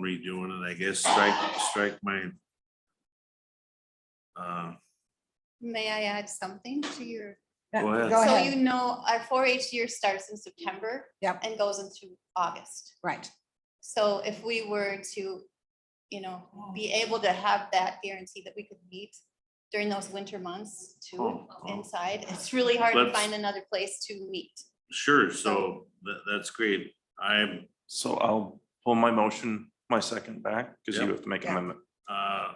redoing it, I guess, strike, strike my. Uh, May I add something to your? Go ahead. Go So you ahead, know, our four H year starts in September. Yep. And goes into August. right. So if we were to, you know, Oh. be able to have that guarantee that we could meet during those winter months too, Oh, oh. inside, it's really hard to Let's- find another place to meet. sure, so that, that's great. I'm, So I'll pull my motion, my second back, because you Yep. have to make Yeah. amendment. uh,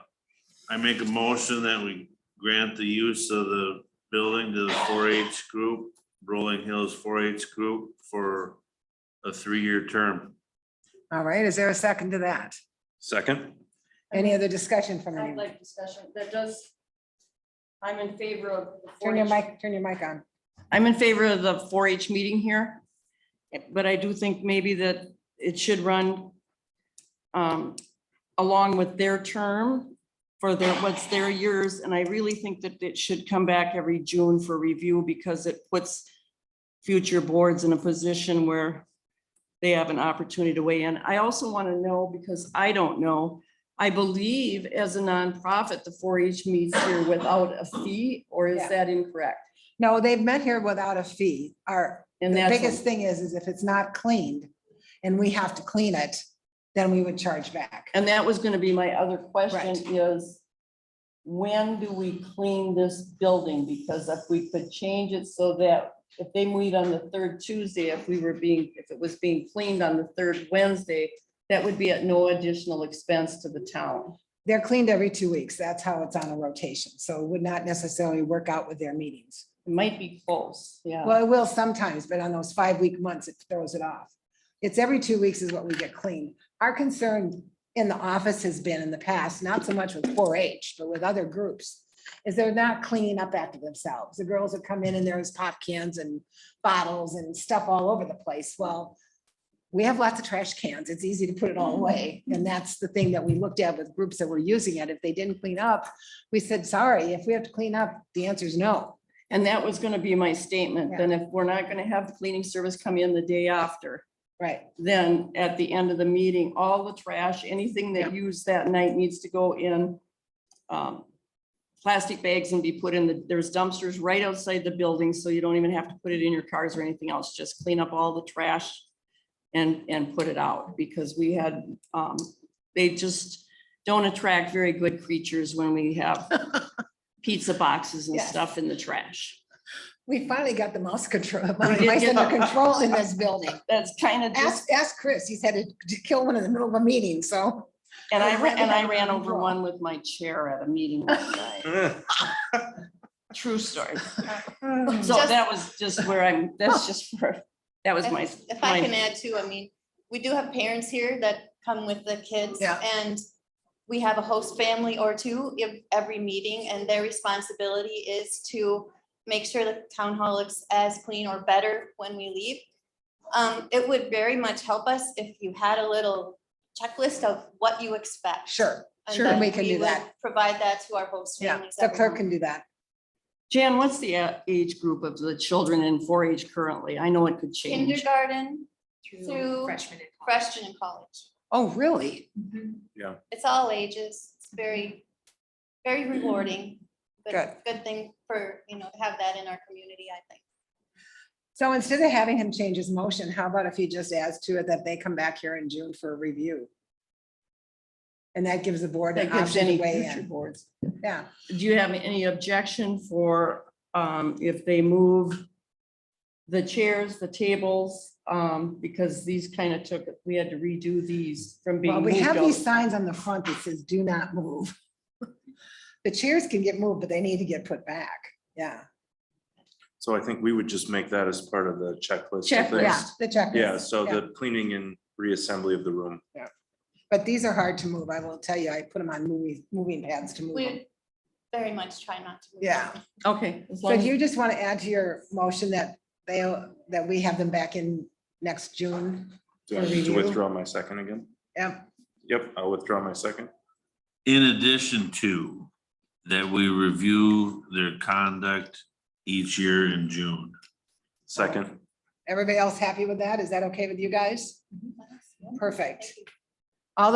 I make a motion that we grant the use of the building to the four H group, Rolling Hills four H group for a three-year term. All right, is there a second to that? Second, Any other discussion from I'd anyone? like discussion, that does. I'm in favor of. the Turn your 4-H. mic, turn your mic on. I'm in favor of the four H meeting here. But I do think maybe that it should run. Um, along with their term for their, what's their years, and I really think that it should come back every June for review because it puts. Future boards in a position where they have an opportunity to weigh in. I also want to know, because I don't know. I believe as a nonprofit, the four H meets here without a fee, or Yeah. is that incorrect? No, they've met here without a fee. Our, And the that's. biggest thing is, is if it's not cleaned and we have to clean it, then we would charge back. And that was gonna be my other question is, when do we clean this building? Because if we could change it so that if they meet on the third Tuesday, if we were being, if it was being cleaned on the third Wednesday, that would be at no additional expense to the town. They're cleaned every two weeks. That's how it's on a rotation. So it would not necessarily work out with their meetings. It might be close, yeah. Well, it will sometimes, but on those five week months, it throws it off. It's every two weeks is what we get cleaned. Our concern in the office has been in the past, not so much with four H, but with other groups. Is they're not cleaning up after themselves. The girls would come in and there's pop cans and bottles and stuff all over the place. Well. We have lots of trash cans. It's easy to put it all away. And that's the thing that we looked at with groups that were using it. If they didn't clean up, we said, sorry, if we have to clean up, the answer is no. And that was gonna be my statement. Yeah. Then if we're not gonna have the cleaning service come in the day after, Right. then at the end of the meeting, all the trash, anything that used that night needs to go in um, plastic bags and be put in the, there's dumpsters right outside the building, so you don't even have to put it in your cars or anything else. Just clean up all the trash and, and put it out, because we had, um, they just don't attract very good creatures when we have pizza boxes and Yes. stuff in the trash. We finally got the mouse control, did mice get- under control in this building. That's kind of just. Ask, ask Chris, he's had to d- kill one in the middle of a meeting, so. And I, Or ran- and I ran random over draw. one with my chair at a meeting last night. True story. So Just- that was just where I'm, that's just where, that was my. If I my- can add too, I mean, we do have parents here that come with the kids. Yeah. And we have a host family or two in every meeting, and their responsibility is to make sure the town hall looks as clean or better when we leave. Um, it would very much help us if you had a little checklist of what you expect. Sure, And sure, then we can do would that. Provide that to our host Yeah, families. the every clerk month. can do that. Jan, what's the uh, age group of the children in four H currently? I know it could change. Kindergarten, through Through freshman and college. freshman and college. Oh, really? it's all ages. It's very, very rewarding. Mm-hmm. Good. Good thing for, you know, to have that in our community, I think. So instead of having him change his motion, how about if he just adds to it that they come back here in June for a review? And that gives the board That an gives option any to weigh future in. boards. Yeah, Do you have any objection for, um, if they move the chairs, the tables, um, because these kind of took, we had to redo these from being well, we moved have out. these signs on the front that says, do not move. The chairs can get moved, but they need to get put back. Yeah, so I think we would just make that as part of the checklist. of Checklist. yeah, things. the checklist. Yeah, so Yeah. the cleaning and reassembly of the room. But these are hard to move. I will tell you, I put them on moving, moving pads to move them. We very much try not to. move Yeah. them. Okay. as So long do as- you just want to add to your motion that they, that we have them back in next June? Do I For need to review. withdraw my second again? Yep, Yep, I'll withdraw my second. In addition to that, we review their conduct each year in June. Second, everybody else happy with that? Is that okay with you guys? Thank Perfect. you.